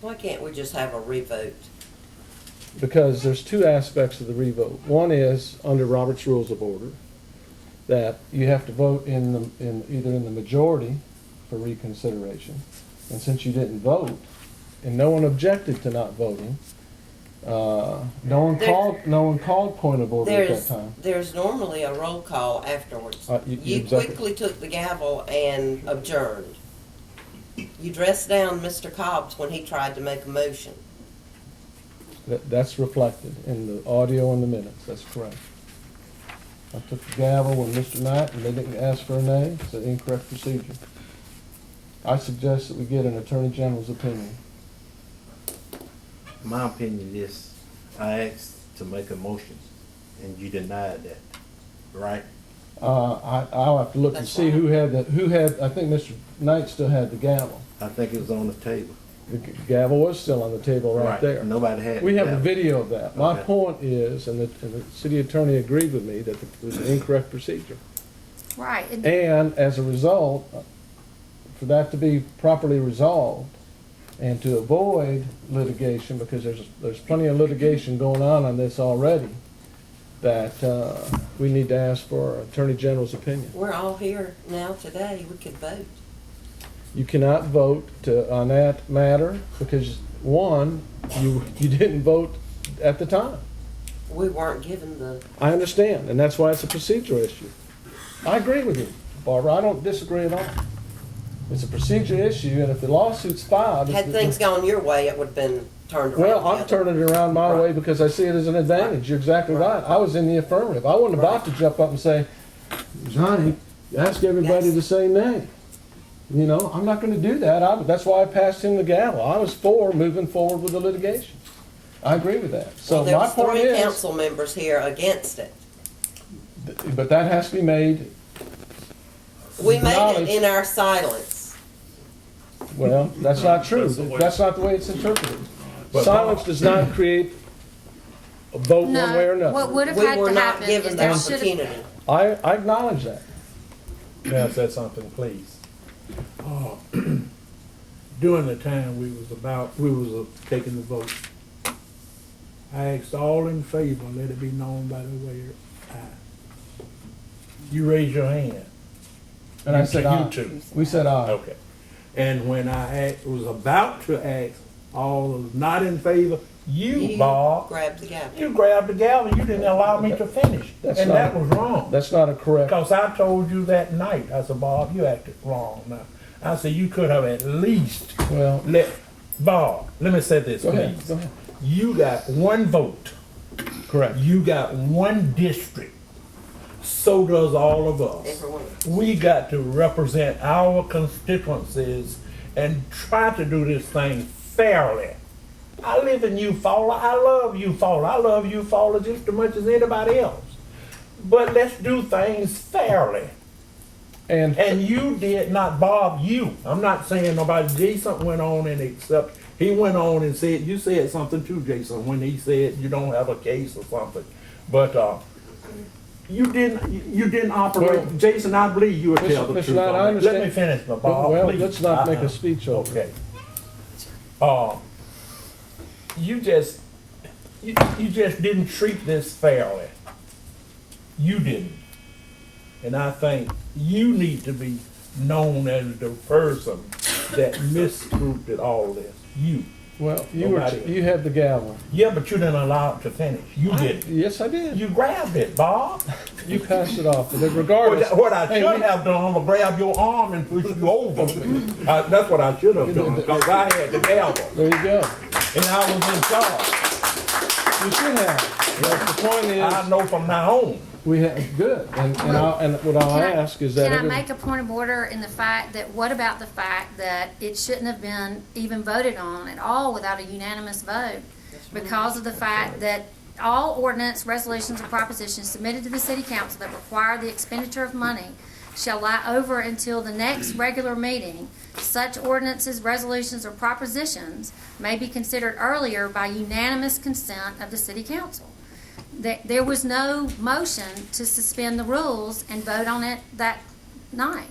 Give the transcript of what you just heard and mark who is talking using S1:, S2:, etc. S1: Why can't we just have a revote?
S2: because there's two aspects of the revote. One is under Robert's Rules of Order, that you have to vote in the, in, either in the majority for reconsideration. And since you didn't vote, and no one objected to not voting, uh, no one
S1: There-
S2: called, no one called point of order at that
S1: There's,
S2: time.
S1: there's normally a roll call afterwards.
S2: Uh, you- you
S1: You
S2: exactly-
S1: quickly took the gavel and adjourned. You dressed down Mr. Cobb's when he tried to make a motion.
S2: That, that's reflected in the audio and the minutes, that's correct. I took the gavel when Mr. Knight, and they didn't ask for a name, it's an incorrect procedure. I suggest that we get an Attorney General's opinion.
S3: My opinion is, I asked to make a motion, and you denied that, right?
S2: Uh, I, I'll have to look and
S1: That's
S2: see who had the, who had, I think Mr. Knight still had the gavel.
S3: I think it was on the table.
S2: The g- gavel was still on the table right there.
S3: Nobody had.
S2: We have a
S3: that.
S2: video of that. My
S3: Okay.
S2: point is, and the, and the city attorney agreed with me, that it was an incorrect procedure.
S4: Right, and
S2: And as a result, for that to be properly resolved and to avoid litigation, because there's, there's plenty of litigation going on on this already, that, uh, we need to ask for our Attorney General's opinion.
S1: We're all here now today, we could vote.
S2: You cannot vote to, on that matter because, one, you, you didn't vote at the time.
S1: We weren't given the,
S2: I understand, and that's why it's a procedural issue. I agree with you, Barbara, I don't disagree at all. It's a procedure issue, and if the lawsuit's filed. it's-
S1: had things gone your way, it would've been turned around.
S2: Well,
S1: the
S2: I'm
S1: other-
S2: turning it around my way because I see it as an advantage, you're exactly right. I was in the affirmative, I wasn't about to jump up and say, Johnny, ask everybody
S1: Yes.
S2: the same nay. You know, I'm not gonna do that, I, that's why I passed him the gavel, I was for moving forward with the litigation. I agree with that, so
S1: Well, there
S2: my
S1: was
S2: point
S1: three
S2: is,
S1: council members here against it.
S2: th- but that has to be made,
S1: We made it
S2: Acknowledge-
S1: in our silence.
S2: well, that's not true,
S5: That's the way-
S2: that's not the way it's interpreted.
S5: But-
S2: Silence does not create a vote one way or
S4: no, what
S2: another.
S4: would have
S1: We
S4: had
S1: were
S4: to
S1: not
S4: happen
S1: given the
S4: is there should have,
S1: opportunity.
S2: I, I acknowledge that.
S5: May I say something, please?
S6: uh, during the time we was about, we was uh, taking the vote. I asked all in favor, let it be known by the way your aye. You raise your hand.
S2: And I said
S6: You
S2: aye.
S6: too.
S2: We said aye.
S6: Okay. And when I act, was about to ask all those not in favor, you,
S1: You
S6: Bob,
S1: grabbed the gavel.
S6: you grabbed the gavel, you didn't allow me to finish.
S2: That's
S6: And
S2: not-
S6: that was wrong.
S2: That's not a correct,
S6: Because I told you that night, I said, Bob, you acted wrong now. I said, you could have at least
S2: well,
S6: let, Bob, let me say this,
S2: go ahead,
S6: please.
S2: go ahead.
S6: You got one vote.
S2: Correct.
S6: You got one district. So does all of us.
S1: Every one of us.
S6: We got to represent our constituencies and try to do this thing fairly. I live in Eufaula. I love Eufaula. I love Eufaula just as much as anybody else. But let's do things fairly.
S2: And,
S6: And you did not, Bob, you. I'm not saying nobody, Jason went on and except, he went on and said, you said something too, Jason, when he said you don't have a case or something. But, uh, you didn't, you- you didn't
S2: Well-
S6: operate, Jason, I believe you would
S2: Mr.
S6: tell the
S2: Mr.
S6: truth.
S2: Knight, I
S6: on that. Let me
S2: understand.
S6: finish, my Bob,
S2: well,
S6: please.
S2: let's not make
S6: Uh-uh.
S2: a speech over it.
S6: Okay. Uh, you just, you, you just didn't treat this fairly. You didn't. And I think you need to be known as the person that misgrouped all this. You.
S2: Well, you were,
S6: Nobody-
S2: you had the gavel.
S6: Yeah, but you didn't allow it to finish. You didn't.
S2: Yes, I did.
S6: You grabbed it, Bob.
S2: You passed it off, but
S6: What
S2: regardless.
S6: I- What I
S2: Hey,
S6: should
S2: we-
S6: have done, I'm gonna grab your arm and push you over. Uh, That's what I should have done, because I had the gavel,
S2: There you go.
S6: and I was in charge.
S2: You should have. But the point
S6: I
S2: is,
S6: know from now on.
S2: we have, good. And, and I, and what I'll
S4: Can I-
S2: ask is that.
S4: can I
S2: every-
S4: make a point of order in the fact that, what about the fact that it shouldn't have been even voted on at all without a unanimous vote? Because of the fact that all ordinance, resolutions, or propositions submitted to the city council that require the expenditure of money shall lie over until the next regular meeting. Such ordinances, resolutions, or propositions may be considered earlier by unanimous consent of the city council. There, there was no motion to suspend the rules and vote on it that night.